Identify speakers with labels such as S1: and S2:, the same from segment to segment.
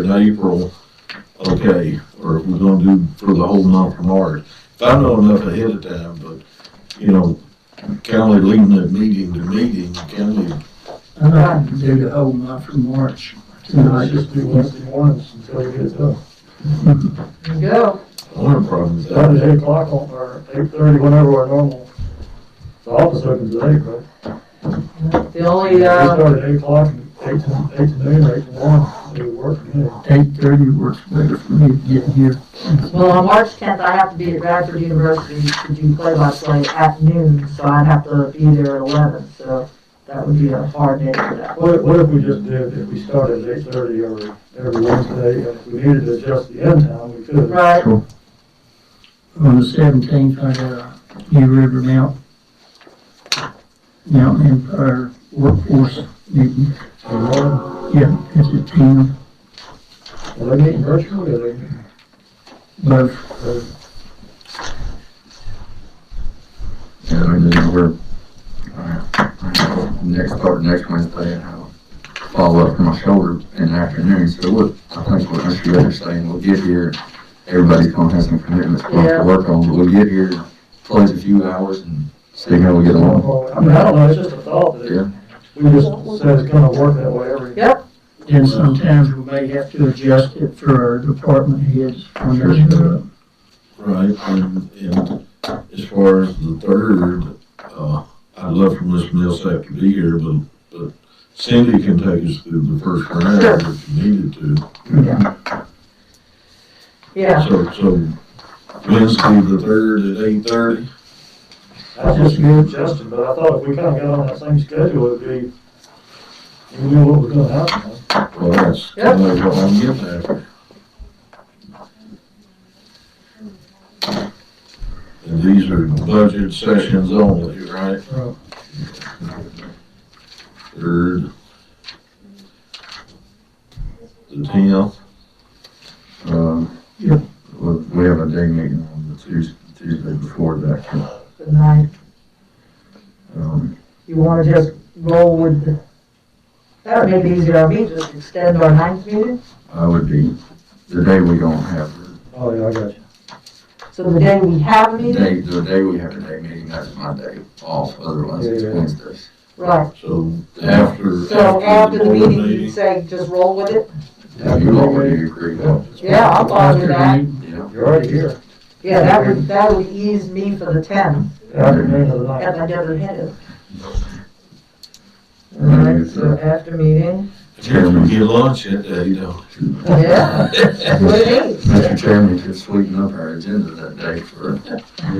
S1: is April, okay, or if we're gonna do for the whole month of March. If I know enough ahead of time, but, you know, county leading the meeting to meeting, county,
S2: I'm not gonna do the whole month for March.
S3: I just do Wednesday mornings until we get it done.
S4: There you go.
S1: one of the problems is
S3: Probably
S1: that.
S3: eight o'clock on, or eight thirty, whenever our normal, the office opens at eight, right?
S4: The only,
S3: We
S4: uh,
S3: start at eight o'clock, and eight to, eight to noon, or eight to one, do work, you know.
S2: Eight thirty works better for me to get here.
S4: well, on March tenth, I have to be at Bradford University to do play-by-play at noon, so I'd have to be there at eleven, so that would be a hard day for that.
S3: What, what if we just did, if we started at eight thirty every, every Wednesday, and if we needed to adjust the end time, we could.
S4: Right,
S2: On the seventeenth, I got a New River Mount, Mountain Empire Workforce meeting.
S3: In the morning,
S2: Yeah, it's at ten,
S3: are they meeting virtually, or they,
S2: both.
S3: or
S5: Yeah, I mean, we're, uh, next part, next Wednesday, and I'll follow up for my shoulder in the afternoon, so what, I think what Mr. Yoder's saying, we'll get here, everybody's gonna have some commitments we'll have
S4: Yeah.
S5: to work on, but we'll get here, close a few hours and see how we get along.
S3: I mean, I don't know, it's just a thought
S5: Yeah.
S3: that we just said it's gonna work that way every.
S4: yep,
S2: And sometimes we may have to adjust it for our department heads when they show up.
S1: Right, and, and as far as the third, uh, I'd love for Ms. Millsap to be here, but, but Cindy can take us through the first round if she needed to.
S4: yeah.
S1: So, so Wednesday, the third at eight thirty?
S3: I just suggested, but I thought if we kinda got on that same schedule, it'd be, we knew what was gonna happen.
S1: Well, that's kind of what I'm getting at. And these are budget sessions only, right?
S2: Right.
S1: Third. The tenth,
S5: Um,
S2: Yep.
S5: we, we have a day meeting on the Tuesday, Tuesday before that,
S4: Good night.
S5: um,
S4: You wanna just roll with the, that would make it easier on me, just extend our ninth meeting.
S5: I would be, the day we don't have,
S3: Oh, yeah, I got you.
S4: So the day we have a
S5: the
S4: meeting,
S5: day, the day we have a day meeting, that's my day off, otherwise it's
S3: Yeah.
S5: Wednesdays.
S4: right,
S1: so after.
S4: so after the
S1: board
S4: meeting, you say just roll with it?
S5: Yeah, you already agree with
S4: Yeah, I'm fine with that.
S2: After
S5: that. Yeah.
S3: You're already here.
S4: Yeah, that would, that would ease me for the tenth,
S3: Afternoon of the
S4: at
S3: night.
S4: my other head. Alright, so after meeting,
S1: Chairman, get lunch that day, don't
S4: yeah, that's what it is.
S5: Mr. Chairman could sweeten up our agenda that day for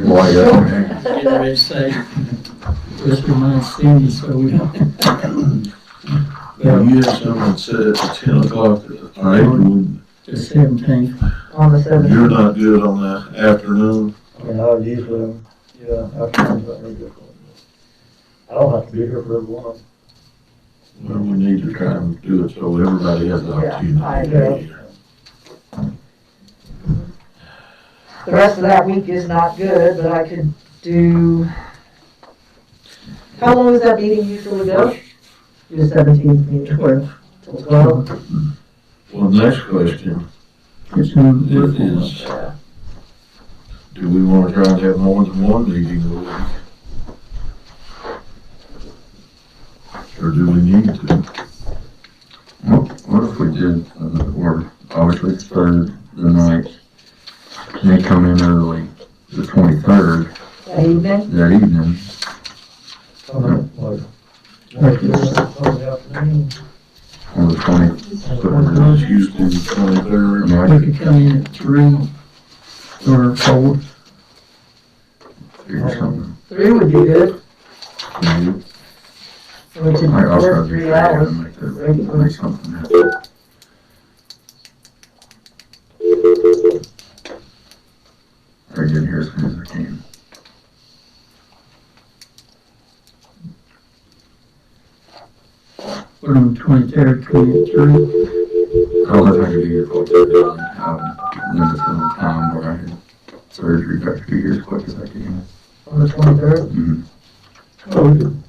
S5: why that.
S2: Get ready to say, just remind Cindy so we don't.
S1: you? You had someone said at ten o'clock, all right, well,
S2: The seventeenth,
S4: on the seventeenth.
S1: you're not good on the afternoon.
S3: I mean, I usually, yeah, afternoon's not very difficult. I don't have to be here for everyone.
S1: Well, we need to try and do it so everybody has the
S4: Yeah, I
S1: opportunity to
S4: agree.
S1: be here.
S4: The rest of that week is not good, but I could do. How long does that meeting usually go? The seventeenth meeting.
S2: twelve,
S4: Till twelve?
S1: Well, next question
S2: it's in the workforce.
S1: is, do we want to try and have more than one meeting a week? Or do we need to?
S5: What what if we did, uh, or obviously it's third, the ninth, and they come in early, the twenty-third,
S4: That evening?
S5: that evening,
S3: Coming up later.
S2: Right.
S3: Sunday afternoon.
S5: or the twenty-third.
S1: Tuesday, the
S5: I
S1: twenty-third,
S5: mean, I
S2: We
S5: could
S2: could come in at three or four.
S5: figure something.
S4: Three would be good.
S5: out.
S4: We could
S5: I- I'll try
S4: work
S5: to
S4: three
S5: figure out
S4: hours.
S5: and make that, make something happen. I get here as soon as I can.
S2: We're on the twenty-third, twenty-three.
S5: I don't know if I could be here for um, then it's another time where I had surgery back two years quick as I can.
S4: On the twenty-third?
S5: Mhm.
S3: So Oh, we could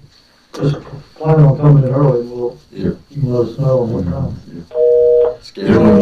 S3: just plan on coming in early, we'll,
S5: Yeah.
S3: you can let us know on what time.
S5: Schedule.